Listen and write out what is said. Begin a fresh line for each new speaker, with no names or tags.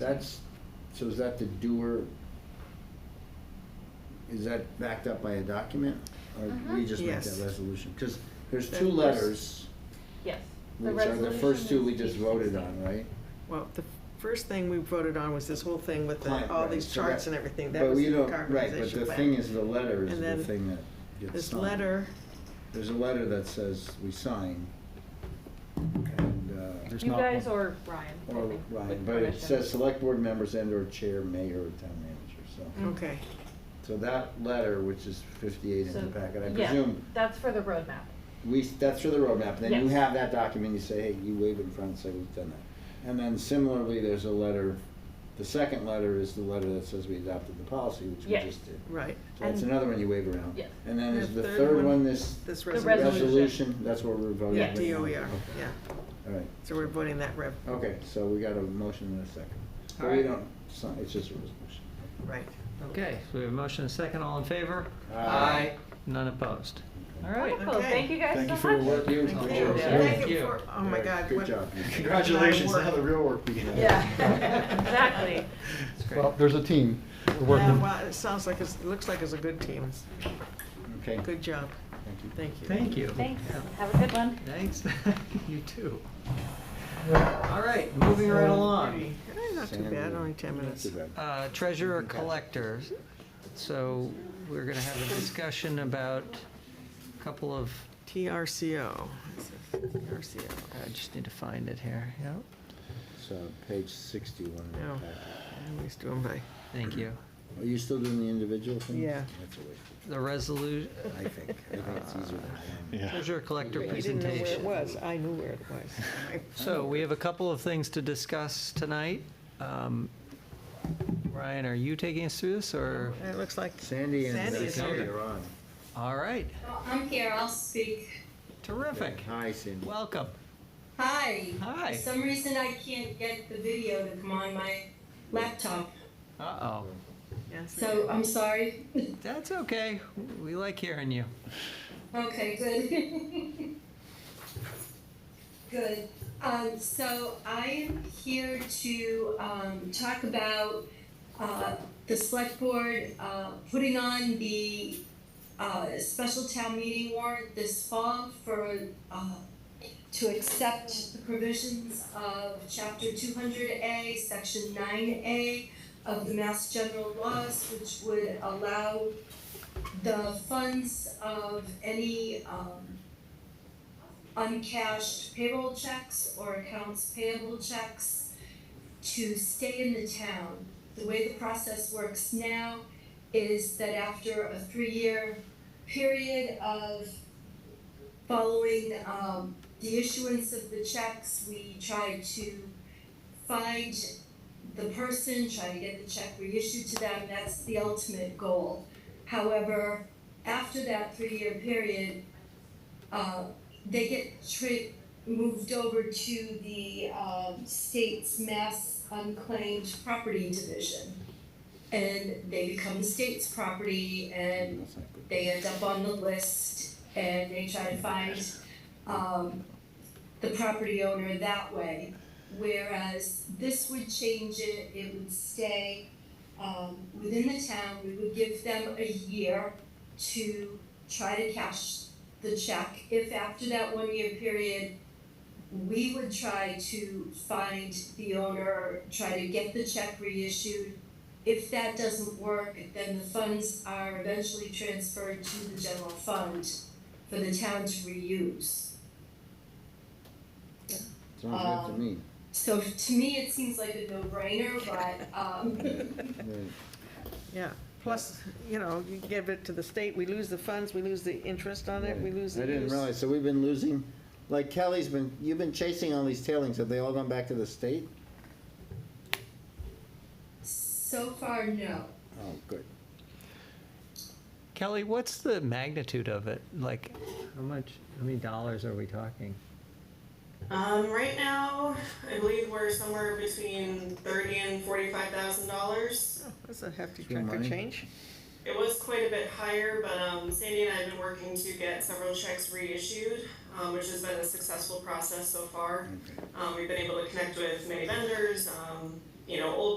that's, so is that the doer? Is that backed up by a document? Or do we
Uh-huh.
just make
Yes.
that resolution? Because there's
The
two
first-
letters,
Yes.
which are the first two we just voted
resolution
on,
is
right?
Well, the first thing we voted on was this whole thing with
Client,
the, all
right,
these
so that-
charts and everything, that
But
was
we
the
don't, right, but
decarbonization
the
plan.
thing is, the letter is
And
the
then
thing that gets signed.
This letter,
There's a letter that says we sign, and, uh,
There's
You
not
guys
one.
or Ryan. I
or,
think,
right,
with
but it
permission.
says select board members and/or chair, mayor, or town manager,
Mm-hmm. Mm.
so.
okay,
So that letter, which is fifty-eight in
So,
the packet, I
yeah,
presume,
That's for the roadmap.
we, that's for the roadmap, then you
Yes.
have that document, you say, hey, you wave it in front and say, we've done that. And then similarly, there's a letter, the second letter is the letter that says we adopted the policy, which we
Yes.
just did.
right,
So that's
And-
another one you wave around.
Yes.
And then
And
is the
the third
third
one-
one, this
this
The
resolution.
resolution, that's what we're voting
Yeah.
right now.
DOER,
Okay.
E yeah,
All right,
so we're voting that rev,
okay, so we got a motion and a second. But we
Alright.
don't, sign- it's just a resolution.
right.
Okay, so we have a motion and a second, all in favor?
Aye.
None opposed. All right.
Wonderful,
Okay.
thank you guys so
Thank you
much.
for your work. You-
Thank
good
you.
work.
Yeah.
Thank you
you.
for, oh my
Very
God.
Good
what-
job.
Congratulations, now the real work begins.
Yeah.
Exactly.
That's great.
Well, there's a team. We're
Yeah,
working.
well, it sounds like, it's- it looks like it's a good team,
Okay,
good job,
thank you.
thank you.
Thank you.
Thanks, have a good one.
Thanks, you too. All right, moving right along.
Eh, Not too bad, only ten minutes.
Not too bad.
Uh, Treasurer collector. So we're going to have a discussion about a couple of,
TRCO, This is TRCO,
I just need to find it here. Yep.
So page sixty-one. of the
No.
packet.
I always do them by,
Thank you.
Are you still doing the individual thing?
Yeah. Uh,
That's a waste,
The resolution,
I think. I think it's easier than I am.
Yeah.
treasurer collector
you didn't know where it
presentation.
was, I knew where it was.
So we have a couple of things to discuss tonight. Um, Ryan, are you taking us through this or?
It looks like
Sandy and
Sandy is
Sandy
here.
are on.
All right,
Well, I'm here, I'll speak.
terrific.
Hi, Sandy.
Welcome.
Hi.
Hi.
For some reason I can't get the video to come on my laptop,
Uh-oh.
Yes.
uh,
so I'm sorry.
That's okay. We like hearing you.
Okay, good. Good. Um, so I am here to, um, talk about, uh, the select board, uh, putting on the, uh, special town meeting warrant this fall for, uh, to accept the provisions of chapter two hundred A, section nine A of the Mass General Laws, which would allow the funds of any um uncashed payroll checks or accounts payable checks to stay in the town. The way the process works now is that after a three-year period of following um the issuance of the checks, we try to find the person, try to get the check reissued to them, that's the ultimate goal. However, after that three-year period, uh, they get tri- moved over to the, um, state's mass unclaimed property division. And they become the state's property and
That's not good.
they end up on the list and they try to find um the property owner that way. Whereas this would change it, it would stay um within the town, we would give them a year to try to cash the check. If after that one year period, we would try to find the owner, try to get the check reissued, if that doesn't work, then the funds are eventually transferred to the general fund for the town to reuse.
Sounds good
um,
to me.
So to me, it seems like a no-brainer, but, um,
Right.
Yeah, plus, you know, you give it to the state, we lose the funds, we lose the interest on it, we lose the
I
use.
didn't realize, so we've been losing, like Kelly's been, you've been chasing all these tailings, have they all gone back to the state?
so far, no.
Oh, good.
Kelly, what's the magnitude of it? Like, how much, how many dollars are we talking?
Um, right now, I believe we're somewhere between thirty and forty-five thousand dollars.
Oh, That's a hefty
It's your
chunk of
money.
change.
It was quite a bit higher, but um, Sandy and I have been working to get several checks reissued, um, which has been a successful process so far.
Okay.
Um, we've been able to connect with many vendors, um, you know, old